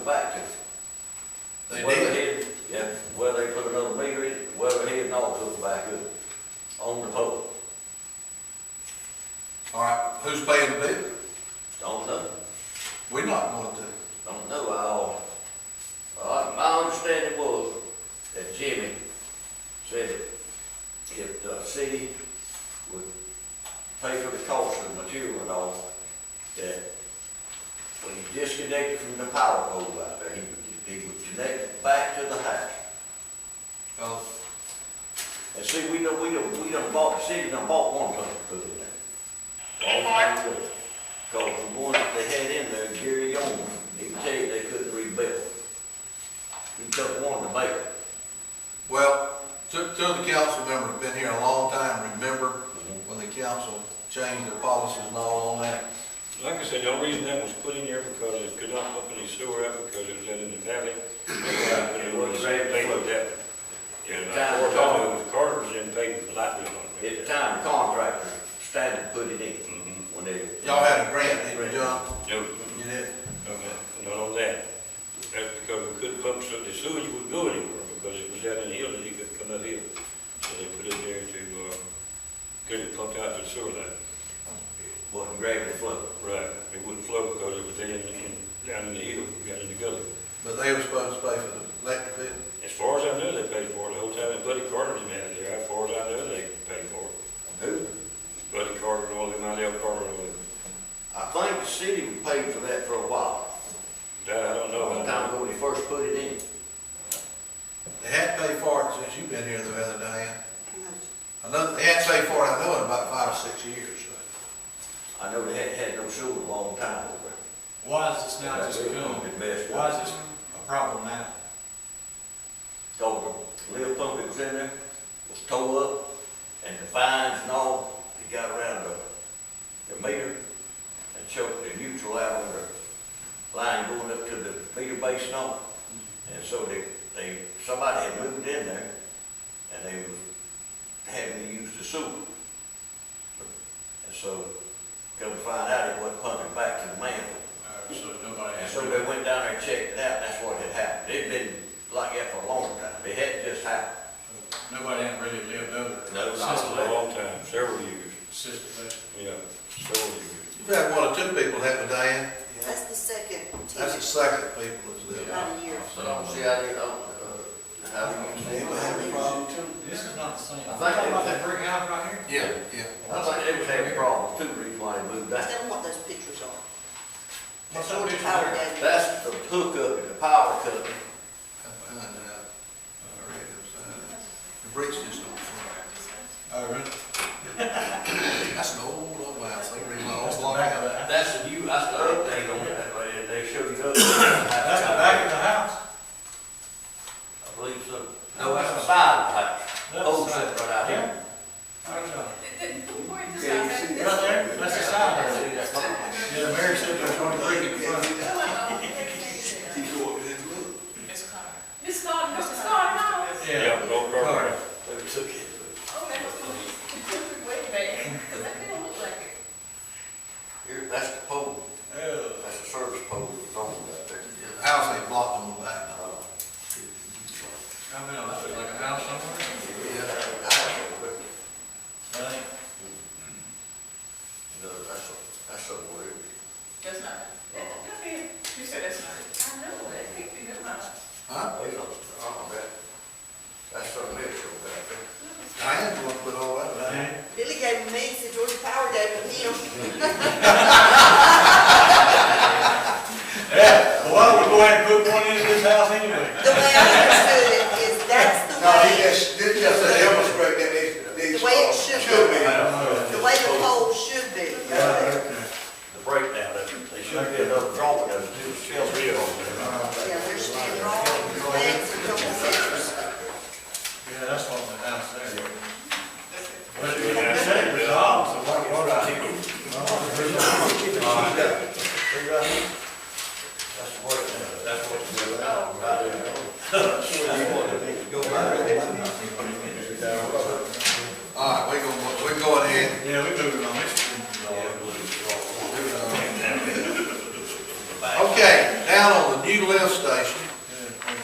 uh, the power pole out there, he would, he would connect it back to the house. Well, And see, we don't, we don't, we don't bought, the city done bought one pump put in there. Hey, Mark. Cause the one that they had in there, Gary Young, he could tell you they couldn't rebuild. He took one to make it. well, two, two of the council members have been here a long time, remember when the council changed their policies and all on that? Like I said, the only reason that was put in there because it could not pump any sewer up because it was in the valley. It was labeled that. And uh, I worked on it, Carter was in paying the light bill on At the it. time, the contractor standard put it in Mhm. when they. Y'all had a grant, didn't you, John? No, You did? okay, not on that. That's because we couldn't pump so the sewage wouldn't go anywhere because it was out in the hill and you could come up here. So they put it there to, uh, get it pumped out to the sewer line. Wasn't gravity flow. Right, it wouldn't flow because it was in, in- down in the hill, down in the gully. But they were supposed to pay for the electric bill. As far as I know, they paid for it. The whole time that Buddy Carter was manager, there, as far as I know, they paid for it. Who? Buddy Carter and all them, Idell Carter, and all them. I think the city paid for that for a while. that I don't know. Long time ago when they first put it in. They had paid for it since you've been here the other day. I know, they had paid for it, I know, in about five or six years. so. I know they had, had no sewer a long time over there. Why is this not just It going? messed Why is up. this a problem now? Cause the lift pump that was in there was tore up and the fines and all, they got around the, the meter and choked the neutral out on the line going up to the meter base and all. And so they, they, somebody had moved in there and they was having to use the sewer. And so, come to find out it wasn't pumping back to the manhole. Uh, So nobody And has. so they went down there and checked it out, and that's what had happened. It'd been like that for a long time. It hadn't just happened. Nobody hadn't really lived over it. No, not Since A the- long time, several years, since the- yeah, several years. You've had one or two people, haven't you, Diane? That's the second That's the tenant, second people that's lived. about a year. So I don't see how they, uh, how they. They were having problems too. This is not the same. I think Talking it- about that brick house right here? Yeah, yeah. I think they was having problems too, reason why they moved Tell out. them what those pictures are. What's That's that what the picture power there? does. That's the hookup and the power cut. Up behind that, uh, red outside. The bricks just don't fly. Oh, really? That's an old, old house, they That's remodeled the long back of ago. the, That's the new, that's the update on that, right? They showed you up. that's the back of the house. I believe so. No, that's the side of the house. That's the Old side. set Oh, right out here. Yeah. I don't know. Yeah, you see Right there, that's the side. See, that's not- Yeah, the mayor said there's only three in front. He's walking in the loop. Miss Todd, Mr. Todd, no. Yeah. Yeah, old Carter. They took it. Oh, that was way back, because that didn't look like it. Here, that's the pole. Oh. That's the service pole that's on that there. The House ain't blocked on the back. Uh, I mean, that looks like a house somewhere. yeah, that's what- I think No, that's, a- that's a word. That's not. That's it. You said that's not. I know, that picked it up. Huh? They don't, uh, that, that's a mixture back there. Diane's the one put all that back. Diane? Billy gave me, he said Georgia Power gave me him. Yeah, why don't we go ahead and put one in this house anyway? The way I understood it is that's the No, he way, just, did just say illustrate that it, The way it should be. I don't know. the way the pole should be. Yeah, The breakdown, that- they should be enough drawing of it too. Still real over there. there's still drawings, plans, and couple pictures. Yeah, that's what the house there. That's it. But it was said resolved, so what, what I, That's the breakdown. that's what. All right, we go, we go ahead. Yeah, we moving on, it's, Okay, down on the new lift station,